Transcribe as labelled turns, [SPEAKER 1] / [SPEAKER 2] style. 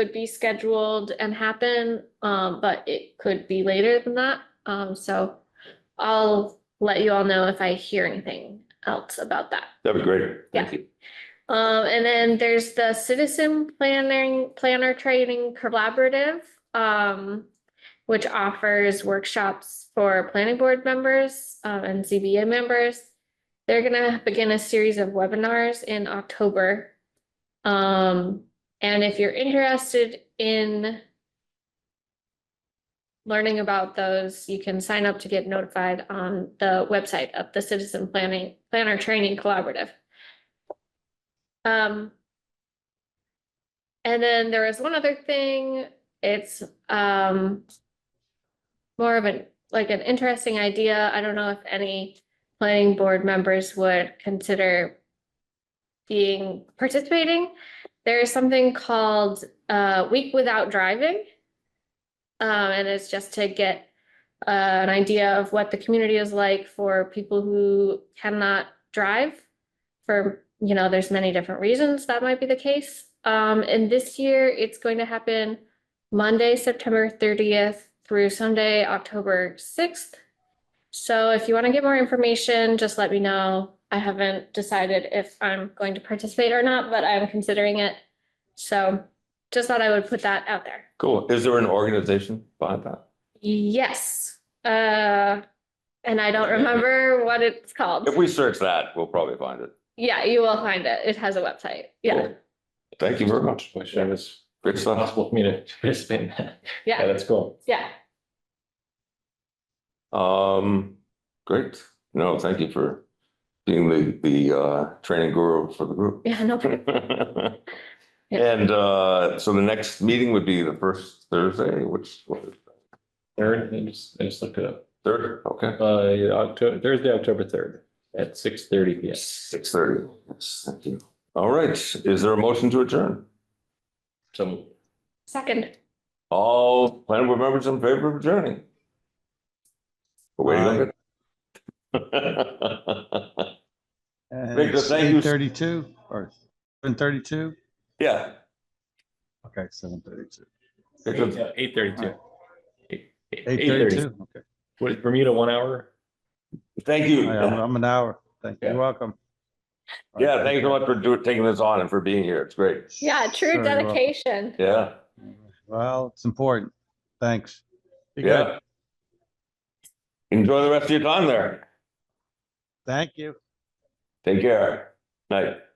[SPEAKER 1] could be scheduled and happen, um, but it could be later than that. Um, so I'll let you all know if I hear anything else about that.
[SPEAKER 2] That'd be great. Thank you.
[SPEAKER 1] Um, and then there's the citizen planning, planner training collaborative, um, which offers workshops for planning board members, um, and ZBA members. They're gonna begin a series of webinars in October. Um, and if you're interested in learning about those, you can sign up to get notified on the website of the Citizen Planning, Planner Training Collaborative. Um. And then there is one other thing, it's um. More of an, like an interesting idea, I don't know if any planning board members would consider. Being, participating, there is something called uh Week Without Driving. Um, and it's just to get uh, an idea of what the community is like for people who cannot drive for, you know, there's many different reasons that might be the case. Um, and this year it's going to happen Monday, September thirtieth through Sunday, October sixth. So if you want to get more information, just let me know. I haven't decided if I'm going to participate or not, but I'm considering it. So just thought I would put that out there.
[SPEAKER 2] Cool. Is there an organization behind that?
[SPEAKER 1] Yes, uh, and I don't remember what it's called.
[SPEAKER 2] If we search that, we'll probably find it.
[SPEAKER 1] Yeah, you will find it. It has a website. Yeah,
[SPEAKER 2] Cool. Thank you very much.
[SPEAKER 3] Wish it was
[SPEAKER 2] Great stuff.
[SPEAKER 3] possible for me to participate in that. Yeah,
[SPEAKER 1] yeah,
[SPEAKER 3] that's cool.
[SPEAKER 1] yeah.
[SPEAKER 2] Um, great. No, thank you for being the, the, uh, training guru for the group.
[SPEAKER 1] Yeah, no problem.
[SPEAKER 2] And, uh, so the next meeting would be the first Thursday, which, what is that?
[SPEAKER 3] Third, I just, I just looked it up.
[SPEAKER 2] third? Okay.
[SPEAKER 3] Uh, October, Thursday, October third at six thirty P M.
[SPEAKER 2] Six thirty. Yes, thank you. All right. Is there a motion to adjourn?
[SPEAKER 3] So
[SPEAKER 1] Second,
[SPEAKER 2] All planning board members in favor of adjourning? We're waiting on it. Victor, thank you.
[SPEAKER 4] Thirty-two or seven thirty-two?
[SPEAKER 2] Yeah.
[SPEAKER 4] Okay, seven thirty-two.
[SPEAKER 2] Victor,
[SPEAKER 3] eight thirty-two.
[SPEAKER 4] Eight thirty-two, okay.
[SPEAKER 3] What is Bermuda, one hour?
[SPEAKER 2] Thank you.
[SPEAKER 4] I- I'm I'm an hour. Thank you.
[SPEAKER 3] Yeah.
[SPEAKER 4] You're welcome.
[SPEAKER 2] Yeah, thank you so much for doing, taking this on and for being here. It's great.
[SPEAKER 1] yeah,
[SPEAKER 4] Sure,
[SPEAKER 1] true
[SPEAKER 4] you're welcome.
[SPEAKER 1] dedication.
[SPEAKER 2] Yeah,
[SPEAKER 4] Well, it's important. Thanks. Be good.
[SPEAKER 2] yeah. Enjoy the rest of your time there.
[SPEAKER 4] Thank you.
[SPEAKER 2] Take care. Night.